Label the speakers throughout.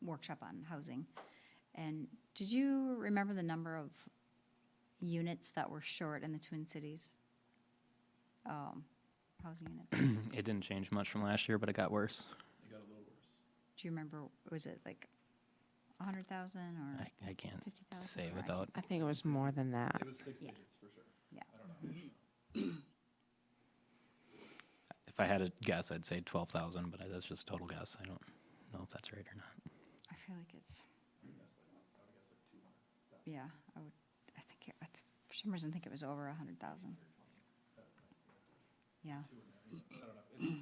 Speaker 1: workshop on housing. And did you remember the number of units that were short in the Twin Cities? Um, Housing units?
Speaker 2: It didn't change much from last year, but it got worse.
Speaker 1: Do you remember, was it like a hundred thousand or
Speaker 2: I, I can't
Speaker 1: fifty thousand?
Speaker 2: say without.
Speaker 3: I think it was more than that.
Speaker 2: If I had a guess, I'd say twelve thousand, but I- that's just a total guess. I don't know if that's right or not.
Speaker 1: I feel like it's. Yeah, I would, I think, it- I th- for some reason, think it was over a hundred thousand. Yeah. I don't know,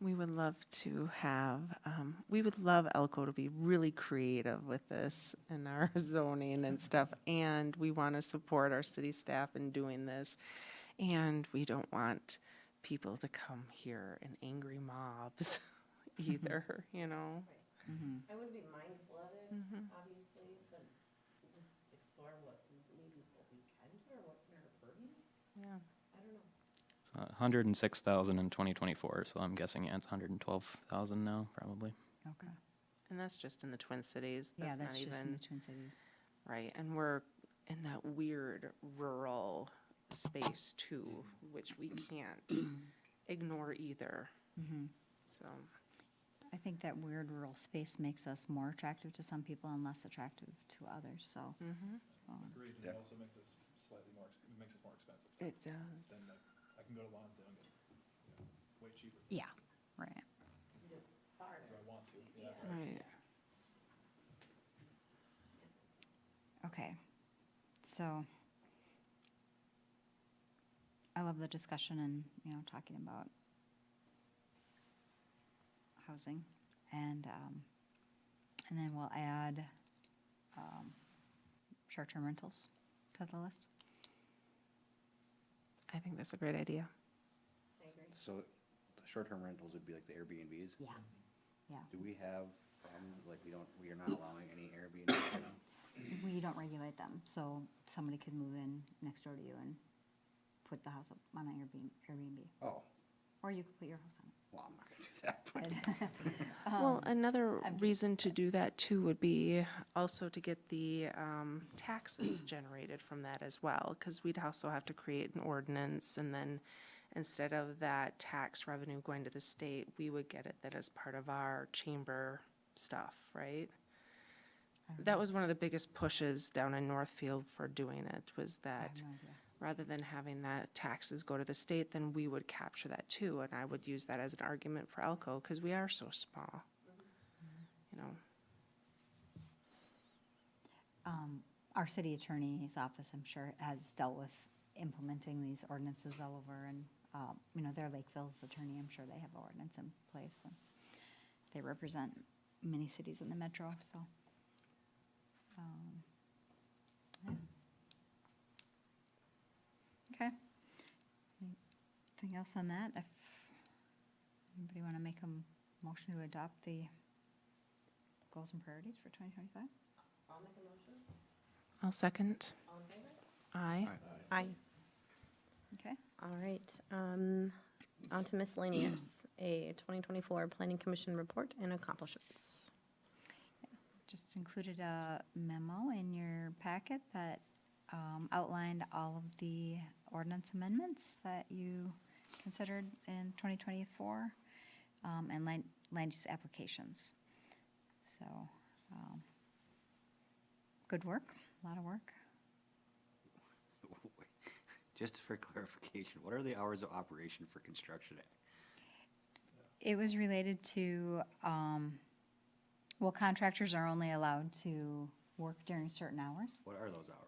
Speaker 3: We would love to have, um, we would love Elko to be really creative with this and our zoning and stuff. And we want to support our city staff in doing this. And we don't want people to come here in angry mobs either, you know?
Speaker 4: I would be mindful of it, obviously, but just explore what, maybe what we can do or what's in our purview.
Speaker 3: Yeah.
Speaker 4: I don't know.
Speaker 2: So a hundred and six thousand in twenty twenty-four, so I'm guessing yeah, it's hundred and twelve thousand now, probably.
Speaker 1: it's over a hundred thousand. Yeah, okay.
Speaker 3: And that's just in the Twin Cities.
Speaker 1: Yeah,
Speaker 3: That's not
Speaker 1: that's just in
Speaker 3: even,
Speaker 1: the Twin Cities.
Speaker 3: right, and we're in that weird rural space too, which we can't ignore either. Mm-hmm. So,
Speaker 1: I think that weird rural space makes us more attractive to some people and less attractive to others, so.
Speaker 3: Mm-hmm.
Speaker 5: Agreed, and it also makes us slightly more, ex- it makes us more expensive.
Speaker 3: it
Speaker 5: Then
Speaker 3: does.
Speaker 5: like, I can go to Lonzo and get, you know, way cheaper if
Speaker 1: Yeah, right.
Speaker 4: It's farther.
Speaker 5: I want to, yeah.
Speaker 3: Right.
Speaker 1: Okay, so I love the discussion and, you know, talking about housing and, um, and then we'll add, um, short-term rentals to the list.
Speaker 3: I think that's a great idea.
Speaker 4: I agree.
Speaker 6: So the short-term rentals would be like the Airbnbs?
Speaker 1: Yeah. Yeah,
Speaker 6: Do we have, um, like, we don't, we are not allowing any Airbnb right now?
Speaker 1: we don't regulate them, so somebody could move in next door to you and put the house up on an Airbnb, Airbnb,
Speaker 6: Oh,
Speaker 1: or you could put your house on it.
Speaker 6: well, I'm not gonna do that, but
Speaker 3: Well, another reason to do that too would be also to get the um, taxes generated from that as well, because we'd also have to create an ordinance, and then instead of that tax revenue going to the state, we would get it that as part of our chamber stuff, right? That was one of the biggest pushes down in Northfield for doing it, was that
Speaker 1: No idea.
Speaker 3: rather than having that taxes go to the state, then we would capture that too, and I would use that as an argument for Elko, because we are so small.
Speaker 4: Mm-hmm.
Speaker 3: You know,
Speaker 1: um, Our city attorney's office, I'm sure, has dealt with implementing these ordinances all over, and, uh, you know, they're Lakeville's attorney, I'm sure they have ordinance in place. and They represent many cities in the metro, so. um, yeah. Okay. Anything else on that? If anybody want to make a m- motion to adopt the goals and priorities for 2025?
Speaker 4: I'll make a motion.
Speaker 3: I'll second.
Speaker 4: All in favor?
Speaker 3: Aye.
Speaker 7: Aye.
Speaker 1: Okay.
Speaker 7: All right, um, on to miscellaneous, a 2024 Planning Commission report and accomplishments.
Speaker 1: just included a memo in your packet that um, outlined all of the ordinance amendments that you considered in 2024 um, and land, land use applications. So, um, good work, a lot of work.
Speaker 6: just for clarification, what are the hours of operation for construction?
Speaker 1: It was related to, um, well, contractors are only allowed to work during certain hours.
Speaker 6: What are those hours?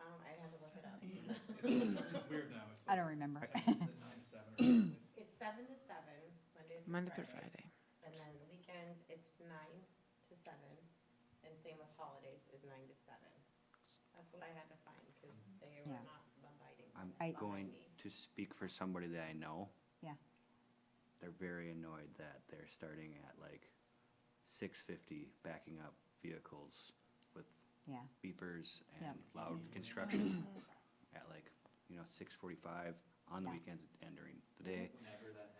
Speaker 4: Um, I have to look it up.
Speaker 5: It's it's weird now, it's
Speaker 1: I
Speaker 5: like,
Speaker 1: don't remember.
Speaker 5: it's at nine to seven or something. It's-
Speaker 4: It's seven to seven, Monday through
Speaker 3: Monday through
Speaker 4: Friday.
Speaker 3: Friday.
Speaker 4: And then weekends, it's nine to seven, and same with holidays is nine to seven. That's what I had to find, because they were
Speaker 1: Yeah.
Speaker 4: not abiding.
Speaker 1: I-
Speaker 4: by
Speaker 6: I'm
Speaker 4: that
Speaker 6: going
Speaker 4: behind me.
Speaker 6: to speak for somebody that I know.
Speaker 1: Yeah.
Speaker 6: They're very annoyed that they're starting at like six fifty, backing up vehicles with
Speaker 1: Yeah.
Speaker 6: beepers
Speaker 1: Yep.
Speaker 6: and loud construction at like, you know, six forty-five on the weekends and during the day.
Speaker 2: Whenever that